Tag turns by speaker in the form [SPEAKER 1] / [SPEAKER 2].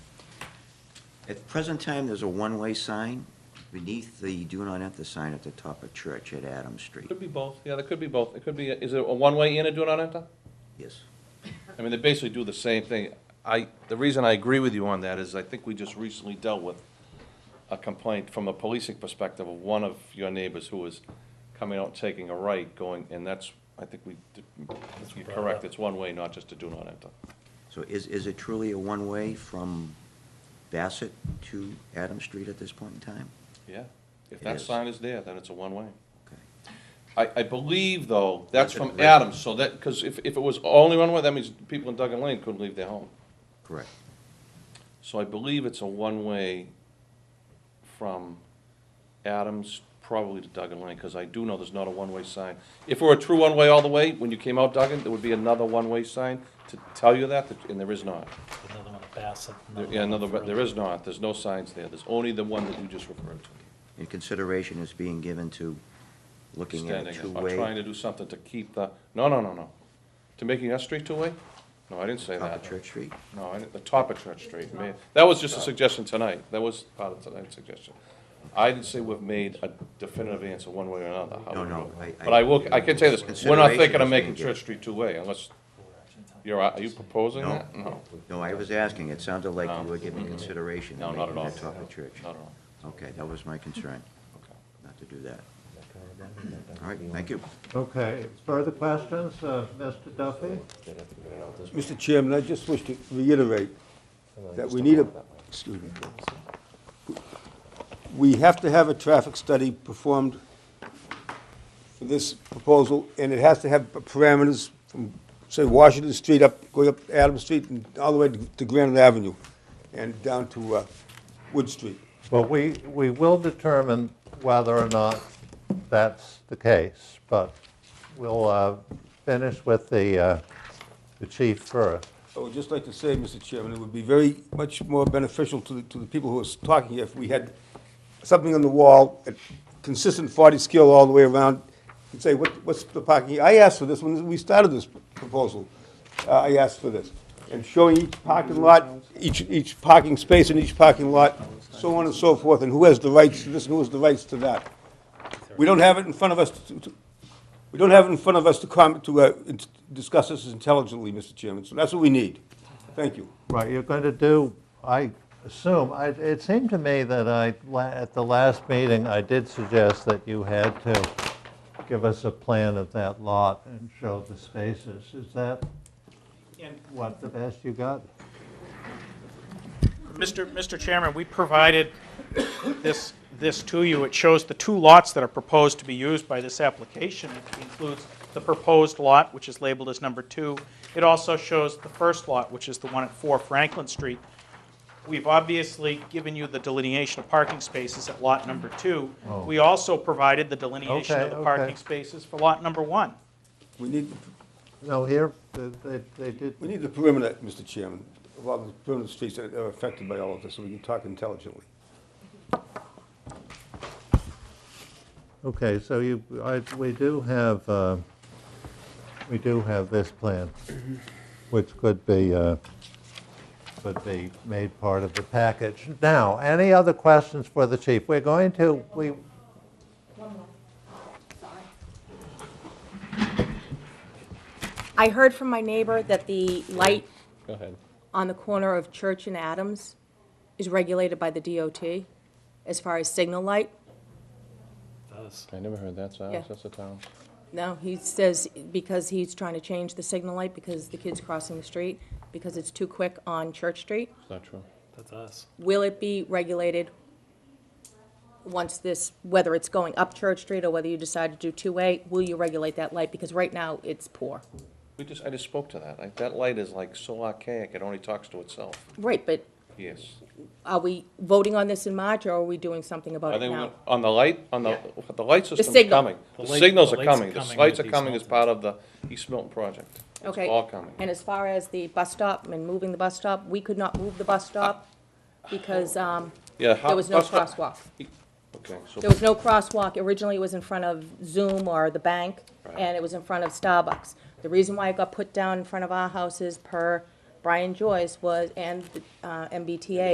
[SPEAKER 1] At the present time, there's a one-way sign beneath the do not enter sign at the top of Church at Adams Street.
[SPEAKER 2] Could be both, yeah, there could be both. It could be, is it a one-way in and do not enter?
[SPEAKER 1] Yes.
[SPEAKER 2] I mean, they basically do the same thing. I, the reason I agree with you on that is I think we just recently dealt with a complaint from a policing perspective of one of your neighbors who was coming out, taking a right, going, and that's, I think we, did- you're correct, it's one way, not just to do not enter.
[SPEAKER 1] So is, is it truly a one-way from Bassett to Adams Street at this point in time?
[SPEAKER 2] Yeah, if
[SPEAKER 1] It
[SPEAKER 2] that
[SPEAKER 1] is.
[SPEAKER 2] sign is there, then it's a one-way.
[SPEAKER 1] Okay.
[SPEAKER 2] I, I believe, though, that's from
[SPEAKER 1] Right.
[SPEAKER 2] Adams, so that, because if, if it was only one way, that means people in Duggan Lane couldn't leave their home.
[SPEAKER 1] Correct.
[SPEAKER 2] So I believe it's a one-way from Adams probably to Duggan Lane, because I do know there's not a one-way sign. If it were a true one-way all the way, when you came out Duggan, there would be another one-way sign to tell you that, and there is not.
[SPEAKER 3] Another one at Bassett.
[SPEAKER 2] There- Yeah, another, but there
[SPEAKER 3] Furlong.
[SPEAKER 2] is not, there's no signs there, there's only the one that you just referred to.
[SPEAKER 1] And consideration is being given to looking at a
[SPEAKER 2] Standing up, or trying
[SPEAKER 1] two-way
[SPEAKER 2] to do something to keep the, no, no, no, no. To making that street two-way? No, I didn't say
[SPEAKER 1] top of
[SPEAKER 2] that.
[SPEAKER 1] Church Street?
[SPEAKER 2] No, I didn't- the top of Church Street. May- That was just a suggestion tonight. That was part of tonight's suggestion. I didn't say we've made a definitive answer one way or another. how
[SPEAKER 1] No,
[SPEAKER 2] we
[SPEAKER 1] no,
[SPEAKER 2] vote.
[SPEAKER 1] I-
[SPEAKER 2] But I will, I can tell you this, we're not thinking
[SPEAKER 1] Consideration
[SPEAKER 2] of
[SPEAKER 1] is
[SPEAKER 2] making
[SPEAKER 1] being given.
[SPEAKER 2] Church Street two-way unless, you're, are you proposing
[SPEAKER 1] No.
[SPEAKER 2] that? No,
[SPEAKER 1] No, I was asking, it sounded like
[SPEAKER 2] No.
[SPEAKER 1] you were giving consideration
[SPEAKER 2] No,
[SPEAKER 1] to
[SPEAKER 2] not at
[SPEAKER 1] making
[SPEAKER 2] all.
[SPEAKER 1] that top of Church.
[SPEAKER 2] not at all.
[SPEAKER 1] Okay, that was my concern,
[SPEAKER 2] Okay.
[SPEAKER 1] not to do that. All right, thank you.
[SPEAKER 4] Okay, further questions, uh, Mr. Duffy?
[SPEAKER 5] Mr. Chairman, I just wish to reiterate that we need a, excuse me. We have to have a traffic study performed for this proposal, and it has to have parameters from, say, Washington Street up, going up Adams Street and all the way to Granite Avenue and down to uh, Wood Street.
[SPEAKER 4] Well, we, we will determine whether or not that's the case, but we'll uh, finish with the, uh, the chief first.
[SPEAKER 5] I would just like to say, Mr. Chairman, it would be very much more beneficial to the, to the people who are talking here if we had something on the wall, a consistent 40 scale all the way around, and say, what, what's the parking? I asked for this when we started this proposal. Uh, I asked for this. And showing each parking lot, each, each parking space in each parking lot, so on and so forth, and who has the rights to this and who has the rights to that. We don't have it in front of us to, to- we don't have it in front of us to comment, to uh, in- discuss this intelligently, Mr. Chairman, so that's what we need. Thank you.
[SPEAKER 4] Right, you're going to do, I assume, I- it seemed to me that I, la- at the last meeting, I did suggest that you had to give us a plan of that lot and show the spaces. Is that what, the best you got?
[SPEAKER 6] Mr. Mr. Chairman, we provided this, this to you. It shows the two lots that are proposed to be used by this application. It includes the proposed lot, which is labeled as number two. It also shows the first lot, which is the one at 4 Franklin Street. We've obviously given you the delineation of parking spaces at lot number two. We also provided the delineation of
[SPEAKER 4] Oh. Okay,
[SPEAKER 6] the
[SPEAKER 4] okay.
[SPEAKER 6] parking spaces for lot number one.
[SPEAKER 5] We need,
[SPEAKER 4] No, here, they- they, they did,
[SPEAKER 5] we need the perimeter, Mr. Chairman, of all the perimeter streets that are affected by all of this, so we can talk intelligently.
[SPEAKER 4] okay, so you, I, we do have, uh, we do have this plan, which could be, uh, could be made part of the package. Now, any other questions for the chief? We're going to, we,
[SPEAKER 7] I heard from my neighbor that the light
[SPEAKER 2] Go ahead.
[SPEAKER 7] on the corner of Church and Adams is regulated by the DOT as far as signal light.
[SPEAKER 3] Does.
[SPEAKER 2] I never heard that, so
[SPEAKER 7] Yeah.
[SPEAKER 2] that's a town.
[SPEAKER 7] No, he says because he's trying to change the signal light because the kid's crossing the street, because it's too quick on Church Street.
[SPEAKER 2] It's not true.
[SPEAKER 3] That's us.
[SPEAKER 7] Will it be regulated once this, whether it's going up Church Street or whether you decide to do two-way, will you regulate that light? Because right now, it's poor.
[SPEAKER 2] We just, I just spoke to that. Like, that light is like so archaic, it only talks to itself.
[SPEAKER 7] Right, but
[SPEAKER 2] Yes.
[SPEAKER 7] are we voting on this in March or are we doing something about
[SPEAKER 2] I
[SPEAKER 7] it
[SPEAKER 2] think,
[SPEAKER 7] now?
[SPEAKER 2] we're- on the light, on the, the light system's
[SPEAKER 7] signal.
[SPEAKER 2] coming.
[SPEAKER 3] The
[SPEAKER 2] The
[SPEAKER 3] light-
[SPEAKER 2] signals
[SPEAKER 3] the
[SPEAKER 2] are
[SPEAKER 3] lights are
[SPEAKER 2] coming. The
[SPEAKER 3] coming
[SPEAKER 2] lights are
[SPEAKER 3] with East
[SPEAKER 2] coming as
[SPEAKER 3] Milton.
[SPEAKER 2] part of the East Milton project. It's
[SPEAKER 7] Okay.
[SPEAKER 2] all coming.
[SPEAKER 7] And as far as the bus stop and moving the bus stop, we could not move the bus stop because um,
[SPEAKER 2] Yeah. Oh. how-
[SPEAKER 7] there was no
[SPEAKER 2] that's what-
[SPEAKER 7] crosswalk.
[SPEAKER 2] Okay, so,
[SPEAKER 7] There was no crosswalk. Originally, it was in front of Zoom or the bank, and it was in front of Starbucks. The reason why it got put down in front of our houses per Brian Joyce was, and uh, MBTA,